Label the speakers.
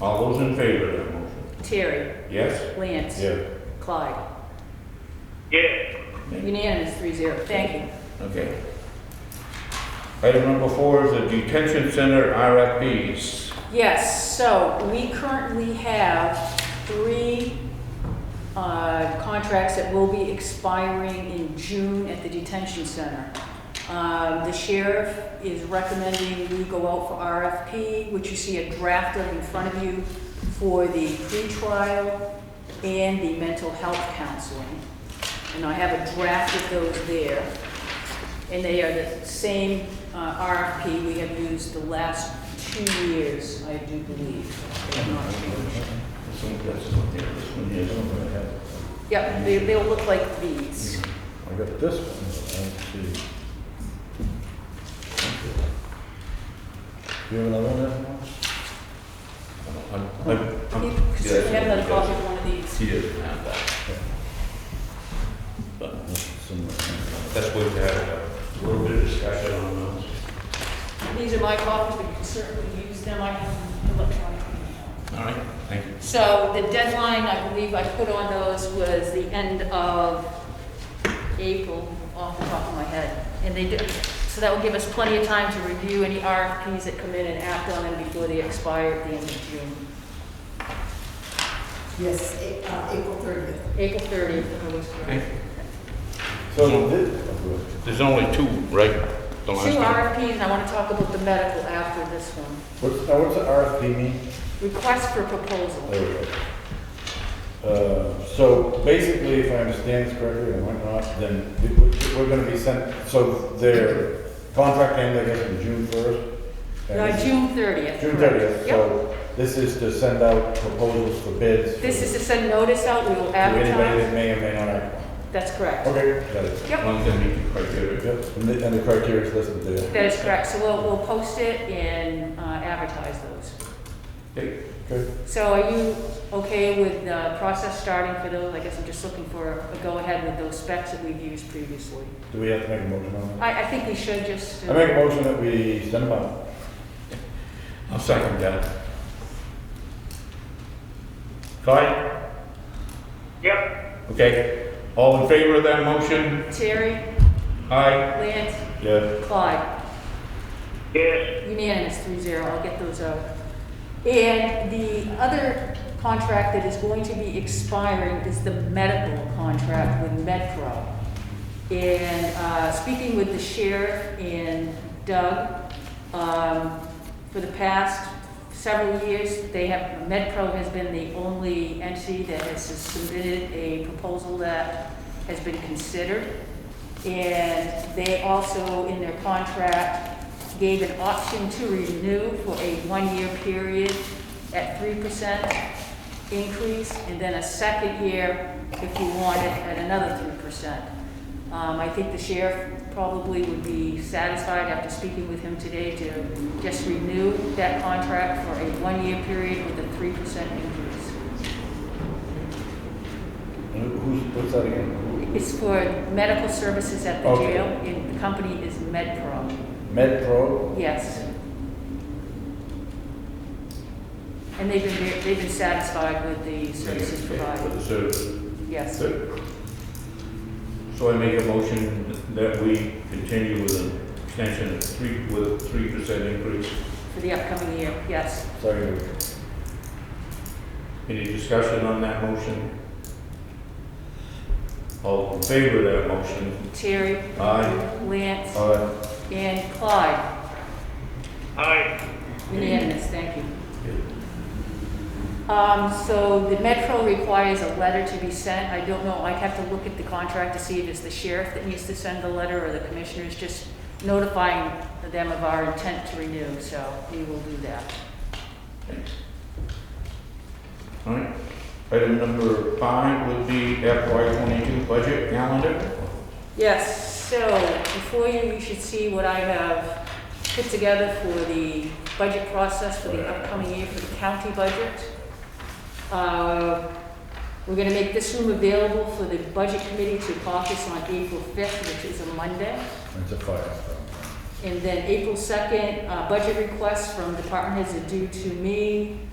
Speaker 1: All those in favor of that motion?
Speaker 2: Terry,
Speaker 1: Yes?
Speaker 2: Lance.
Speaker 1: Yeah.
Speaker 2: Clyde.
Speaker 3: yes,
Speaker 2: Unanimous, three zero. Thank you.
Speaker 1: Okay. Item number four is the detention center RFPs.
Speaker 2: Yes, so we currently have three uh, contracts that will be expiring in June at the detention center. Um, The sheriff is recommending we go out for RFP, which you see a draft of in front of you for the pretrial and the mental health counseling. And I have a draft of those there. And they are the same uh, RFP we have used the last two years, I do believe. They have not changed.
Speaker 1: This one, this one here, this one here, this one I have.
Speaker 2: Yep, they- they'll look like these.
Speaker 1: I got this one, let's see.
Speaker 4: You have another one there?
Speaker 1: I'm- I'm- I'm-
Speaker 2: You
Speaker 1: yeah,
Speaker 2: should have
Speaker 1: that's
Speaker 2: another
Speaker 1: what
Speaker 2: copy of one of these.
Speaker 1: He does. He doesn't have that.
Speaker 4: Somewhere.
Speaker 1: That's what we have, a little bit of discussion on those.
Speaker 2: These are my copies, but you can certainly use them, I can electronically.
Speaker 1: All right, thank you.
Speaker 2: So the deadline, I believe I put on those was the end of April, off the top of my head. And they did, so that will give us plenty of time to review any RFPs that come in and act on them before they expire at the end of June.
Speaker 5: Yes, A- uh, April 30th.
Speaker 2: April 30th, if I was correct.
Speaker 1: Okay.
Speaker 4: So this,
Speaker 1: There's only two, right? The last
Speaker 2: Two
Speaker 1: time?
Speaker 2: RFPs, and I want to talk about the medical after this one.
Speaker 4: what's, now what's the RFP mean?
Speaker 2: Request for proposal.
Speaker 4: There we go. Uh, So basically, if I understand this correctly, and why not, then we- we're gonna be sent, so their contract ends, I guess, on June first?
Speaker 2: No, Uh, June 30th.
Speaker 4: June
Speaker 2: correct.
Speaker 4: thirtieth,
Speaker 2: Yep.
Speaker 4: so this is to send out proposals for bids. for-
Speaker 2: This is to send notice out, we will
Speaker 4: To anybody Oh.
Speaker 2: advertise.
Speaker 4: that may or may not act.
Speaker 2: That's correct.
Speaker 4: Okay, got it.
Speaker 2: Yep.
Speaker 1: One thing we can quite get it.
Speaker 4: Yep, and the, and the criteria is listed there.
Speaker 2: That is correct, so we'll, we'll post it and uh, advertise those.
Speaker 1: Okay.
Speaker 4: Okay.
Speaker 2: So are you okay with the process starting for those? I guess I'm just looking for a go-ahead with those specs that we've used previously.
Speaker 4: Do we have to make a motion on
Speaker 2: I, I think we should just. uh,
Speaker 4: that? I make a motion that we send them out.
Speaker 1: I'll second that. Clyde?
Speaker 3: yep,
Speaker 1: Okay. All in favor of that motion?
Speaker 2: Terry,
Speaker 1: Aye.
Speaker 2: Lance,
Speaker 4: Yeah.
Speaker 2: Clyde,
Speaker 3: yes,
Speaker 2: unanimous, three zero, I'll get those out. And the other contract that is going to be expiring is the medical contract with Medpro. And uh, speaking with the sheriff and Doug, um, for the past several years, they have, MedPro has been the only entity that has submitted a proposal that has been considered. And they also, in their contract, gave an option to renew for a one-year period at three percent increase, and then a second year if you want it at another three percent. Um, I think the sheriff probably would be satisfied after speaking with him today to just renew that contract for a one-year period with a three percent increase.
Speaker 4: And who's, what's that again?
Speaker 2: It's for medical services at the
Speaker 4: Okay.
Speaker 2: jail, and the company is MedPro,
Speaker 4: MedPro?
Speaker 2: yes. And they've been, ver- they've been satisfied with the services
Speaker 1: For
Speaker 2: provided,
Speaker 1: the service.
Speaker 2: yes.
Speaker 1: Good. So I make a motion that we continue with an extension of three, with a three percent increase.
Speaker 2: For the upcoming year, yes.
Speaker 4: Sorry.
Speaker 1: Any discussion on that motion? All in favor of that motion?
Speaker 2: Terry,
Speaker 1: Aye.
Speaker 2: Lance,
Speaker 4: All right.
Speaker 2: and Clyde.
Speaker 3: aye,
Speaker 2: Unanimous, thank you. Um, so the Metro requires a letter to be sent. I don't know, I'd have to look at the contract to see if it's the sheriff that needs to send the letter or the commissioners, just notifying them of our intent to renew, so we will do that.
Speaker 1: All right. Item number five would be FY twenty-two budget calendar.
Speaker 2: Yes, so before you, you should see what I have put together for the budget process for the upcoming year for the county budget. Uh, We're gonna make this room available for the budget committee to caucus on April fifth, which is a Monday.
Speaker 4: It's a fire.
Speaker 2: And then April second, uh, budget requests from department heads are due to me.